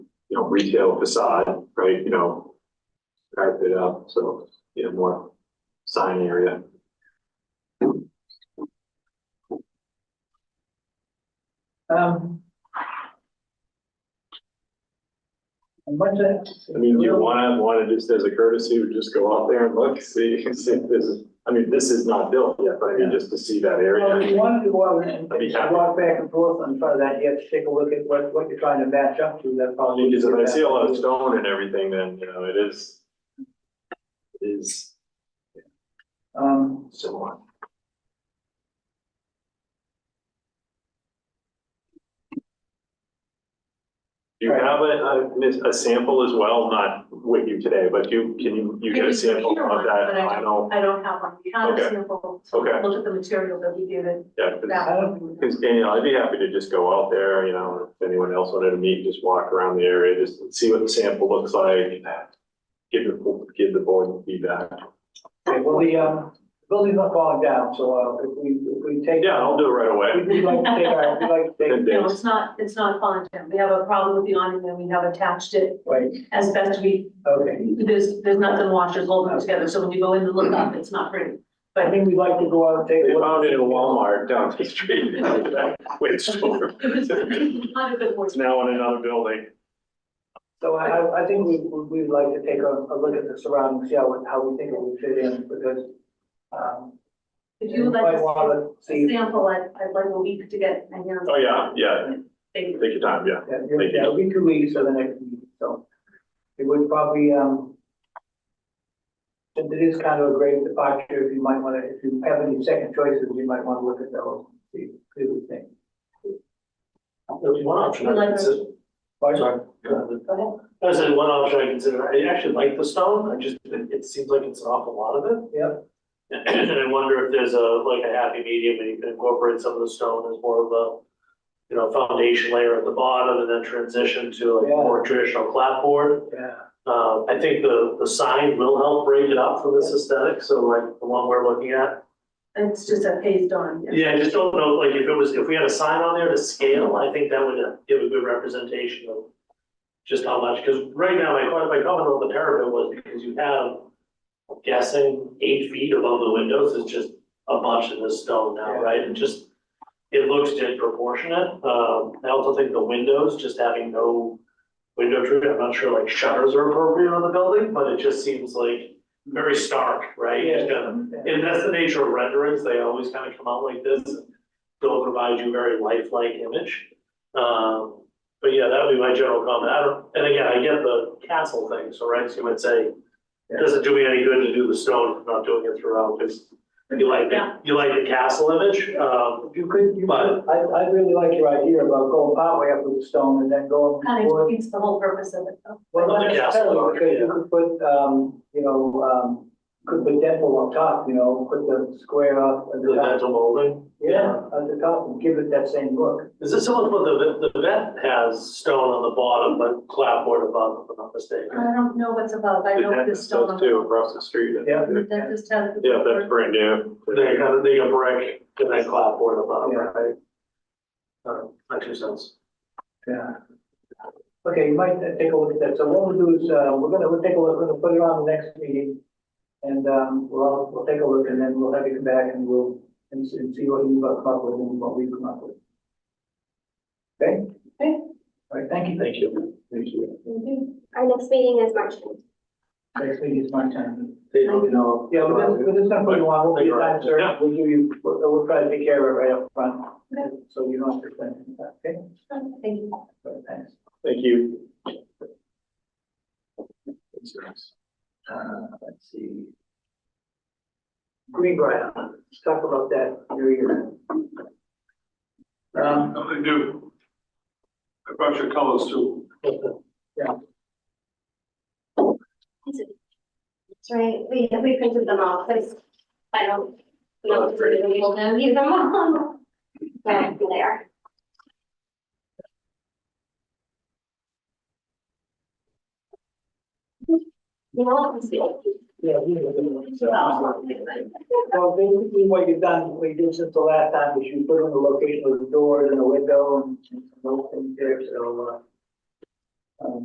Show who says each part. Speaker 1: know, retail facade, right, you know, carpet up, so, you know, more sign area.
Speaker 2: Um. And what's that?
Speaker 1: I mean, do you wanna, wanna just as a courtesy, we just go out there and look, see, see if this is, I mean, this is not built yet, but I mean, just to see that
Speaker 2: Well, if you
Speaker 1: area.
Speaker 2: wanted to go out and
Speaker 1: I'd be happy.
Speaker 2: walk back and forth on front of that, you have to take a look at what, what you're trying to match up to, that
Speaker 1: I
Speaker 2: probably.
Speaker 1: mean, 'cause if I see a lot of stone and everything, then, you know, it is, it is
Speaker 2: Um,
Speaker 1: similar. Do you have a, a, a sample as well, not with you today, but you, can you, you get a
Speaker 3: Maybe you
Speaker 1: sample
Speaker 3: hear
Speaker 1: of
Speaker 3: one,
Speaker 1: that
Speaker 3: but I
Speaker 1: final?
Speaker 3: don't- I don't have one, we had
Speaker 1: Okay.
Speaker 3: a sample,
Speaker 1: Okay.
Speaker 3: look at the material that we did,
Speaker 1: Yeah, 'cause-
Speaker 3: that one.
Speaker 1: Cause Daniel, I'd be happy to just go out there, you know, if anyone else wanted to meet, just walk around the area, just see what the sample looks like. Give the, give the board feedback.
Speaker 2: okay, well, the, um, building's not falling down, so, uh, if we, if we take.
Speaker 1: Yeah, I'll do it right
Speaker 2: We'd
Speaker 1: away.
Speaker 2: we'd like to take our, we'd like to
Speaker 1: Ten
Speaker 2: take,
Speaker 3: No,
Speaker 1: days.
Speaker 3: it's not, it's not falling down, we have a problem with the awning, and we have attached it
Speaker 2: wait,
Speaker 3: as best we,
Speaker 2: okay.
Speaker 3: there's, there's nothing washes holding it together, so when you go in to look up, it's not pretty.
Speaker 2: I think we'd like to go out and take. a
Speaker 1: They
Speaker 2: look.
Speaker 1: found it in a Walmart down the street. Wait, store.
Speaker 3: It was not a good
Speaker 1: It's
Speaker 3: horse.
Speaker 1: now in another building.
Speaker 2: So I, I, I think we, we- we'd like to take a, a look at the surroundings, see how, it- how we think it would fit in, because, um.
Speaker 3: If you would like
Speaker 2: might
Speaker 3: to
Speaker 2: wanna
Speaker 3: see a
Speaker 2: see,
Speaker 3: sample, I'd, I'd like a week to get my hands.
Speaker 1: Oh, yeah, yeah.
Speaker 3: Thank you.
Speaker 1: Take your time, yeah.
Speaker 2: yeah, yeah, yeah, it'll be two weeks or the next meeting, so. It would probably, um. Since it is kind of a great departure, if you might wanna, if you have any second choices, you might wanna look at those, see, see what you think.
Speaker 4: There's one option I consider,
Speaker 2: Pardon?
Speaker 3: Go ahead.
Speaker 4: I said one option I consider, I actually like the stone, I just, it, it seems like it's an awful lot of it.
Speaker 2: Yeah,
Speaker 4: And I wonder if there's a, like a happy medium, and you can incorporate some of the stone as more of a, you know, foundation layer at the bottom and then transition to like
Speaker 2: Yeah.
Speaker 4: more traditional clapboard.
Speaker 2: yeah,
Speaker 4: Uh, I think the, the sign will help break it up for this aesthetic, so like the one we're looking at.
Speaker 3: It's just a phased on.
Speaker 4: Yeah, I just don't know, like if it was, if we had a sign on there to scale, I think that would uh, give a good representation of just how much, because right now, my, my comment on the parapet was because you have, I'm guessing, eight feet above the windows is just a bunch of this stone now, right? And just, it looks disproportionate. Um, I also think the windows, just having no window treatment, I'm not sure like shutters are appropriate on the building, but it just seems like very stark, right? Just kind of
Speaker 2: yeah.
Speaker 4: and that's the nature of renderings, they always kind of come out like this, and they'll provide you a very lifelike image. Um, but yeah, that would be my general comment, I don't, and again, I get the castle thing, so right, so you might say, it doesn't do me any good to do the stone, if I'm not doing it throughout, because you like,
Speaker 3: Yeah.
Speaker 4: the you like the castle image, um,
Speaker 2: If you could, you
Speaker 4: But-
Speaker 2: could, I, I really like your idea about going partway up with the stone and then going.
Speaker 3: Kind of
Speaker 2: forward.
Speaker 3: defeats the whole purpose of it. though.
Speaker 2: Well, not
Speaker 4: Yeah.
Speaker 2: necessarily, because you could put, um, you know, um, could put dental on top, you know, put the square up at
Speaker 4: the
Speaker 2: the top.
Speaker 4: dental molding.
Speaker 2: Yeah, at the top, and give it that same look.
Speaker 4: Is this similar to what the, the vet has stone on the bottom, but clapboard above, if I'm not mistaken?
Speaker 2: Uh,
Speaker 3: I don't know what's above, I
Speaker 1: The
Speaker 3: know
Speaker 1: dentist
Speaker 3: this stone.
Speaker 1: does too, across the street.
Speaker 2: Yeah.
Speaker 3: The dentist has. the-
Speaker 1: Yeah, that's brand new.
Speaker 4: They got, a- they got brick, and then clapboard above,
Speaker 2: Yeah.
Speaker 4: right? Uh, That makes sense.
Speaker 2: Yeah. Okay, you might uh, take a look at that. So what we'll do is, uh, we're gonna, we'll take a look, we're gonna put it on the next meeting. And, um, we'll, we'll take a look and then we'll have you come back and we'll, and s- and see what you come up with and what we come up with. Okay?
Speaker 3: Okay.
Speaker 2: All right, thank you.
Speaker 4: Thank you.
Speaker 2: Thank you.
Speaker 5: Our next meeting is March 9th.
Speaker 2: Next meeting is my time.
Speaker 4: They don't know.
Speaker 2: Yeah, we're just, we're just gonna put you on, we'll be your time, sir,
Speaker 1: Yeah.
Speaker 2: we'll give you, we'll, we'll try to take care of it right up front, so you don't have to explain anything, okay?
Speaker 3: Thank you.
Speaker 2: But thanks.
Speaker 1: Thank you.
Speaker 2: Uh, let's see. Greenbrier, let's talk about that, you're here. Um,
Speaker 6: Nothing new. I brought your colors too.
Speaker 5: That's right, we, we printed them all, because I don't know if we're gonna be able to use them all. But here they are. You know, let's see.
Speaker 2: yeah, we were doing it, so- Well, basically what you've done, what you did since the last time is you put in the location of the doors and the window and and those things there, so, uh, um,